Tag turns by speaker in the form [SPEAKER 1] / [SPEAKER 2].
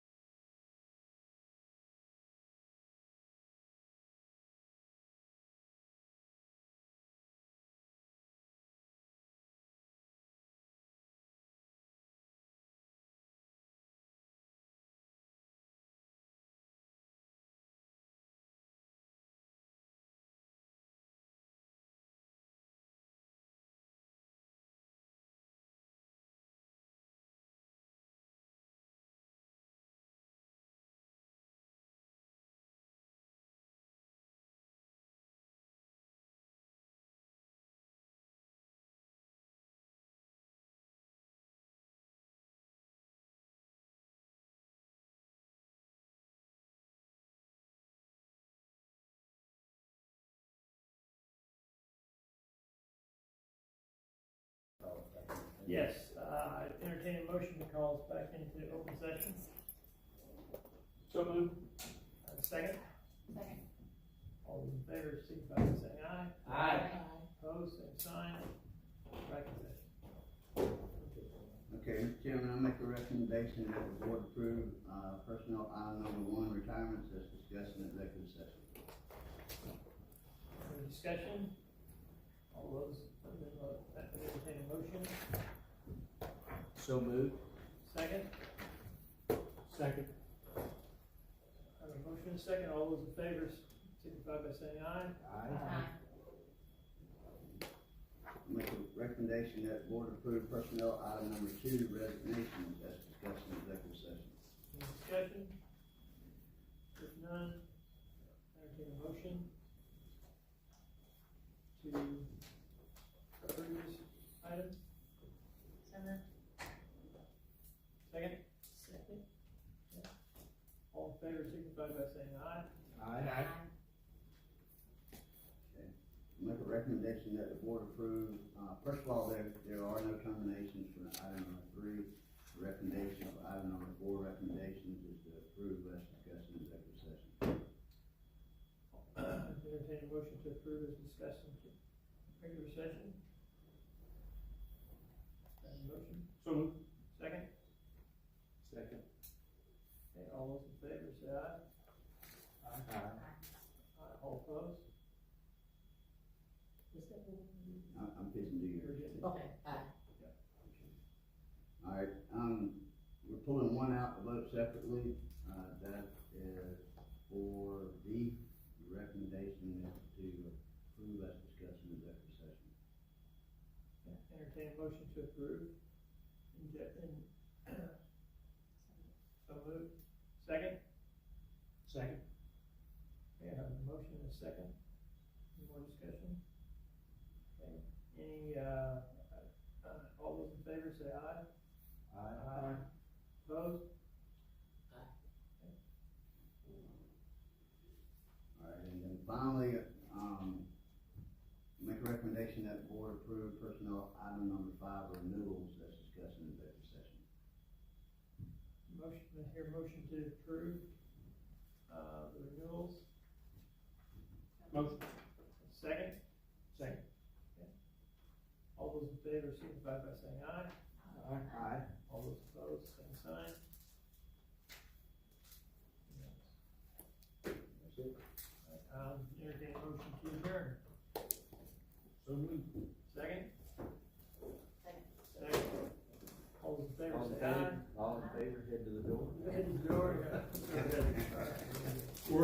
[SPEAKER 1] Yes, uh, entertain a motion to call us back into open session.
[SPEAKER 2] So moved.
[SPEAKER 1] Uh, Second,
[SPEAKER 3] Second.
[SPEAKER 1] all those in favor, signify by saying aye.
[SPEAKER 2] Aye.
[SPEAKER 1] Opposed, same sign. Back in session.
[SPEAKER 4] Okay, Mr. Chairman, I make a recommendation that the board approve, uh, personnel item number one, retirements as discussed in executive session.
[SPEAKER 1] Any discussion? All those, uh, entertain a motion.
[SPEAKER 2] So moved.
[SPEAKER 1] Second,
[SPEAKER 2] Second.
[SPEAKER 1] I have a motion and a second. All those in favor, signify by saying aye.
[SPEAKER 2] Aye.
[SPEAKER 4] I Make a recommendation that the board approve personnel item number two, resignations as discussed in executive session.
[SPEAKER 1] Any discussion? If none, entertain a motion to cover this item. Second? Second. All in favor, signify by saying aye.
[SPEAKER 2] Aye.
[SPEAKER 4] I Make a recommendation that the board approve, uh, first of all, there, there are no terminations for item number three. The Recommendation of item number four, recommendations is to approve as discussed in executive session.
[SPEAKER 1] Entertain a motion to approve as discussed in regular session. Have a motion,
[SPEAKER 2] So moved.
[SPEAKER 1] second,
[SPEAKER 2] Second.
[SPEAKER 1] okay, all those in favor say aye,
[SPEAKER 2] Aye.
[SPEAKER 1] aye, all opposed? Is that what we-
[SPEAKER 4] I, I'm fixing to do your.
[SPEAKER 1] Or is it-
[SPEAKER 3] Okay, aye.
[SPEAKER 4] All right, um, we're pulling one out to vote separately, uh, that is for D, the recommendation is to approve as discussed in executive session.
[SPEAKER 1] Entertain a motion to approve. And, get- and, so moved, second,
[SPEAKER 2] Second.
[SPEAKER 1] okay, I have a motion and a second, any more discussion? Okay, any, uh, uh, all those in favor say aye. Aye. Opposed?
[SPEAKER 4] All right, and then finally, um, make a recommendation that the board approve personnel item number five, renewals as discussed in executive session.
[SPEAKER 1] Motion, I hear a motion to approve, uh, the renewals,
[SPEAKER 2] Motion.
[SPEAKER 1] second,
[SPEAKER 2] Second.
[SPEAKER 1] all those in favor signify by saying aye,
[SPEAKER 2] Aye.
[SPEAKER 1] all those opposed, same sign.
[SPEAKER 4] That's it.
[SPEAKER 1] Um, entertain a motion to adjourn,
[SPEAKER 2] So moved.
[SPEAKER 1] second,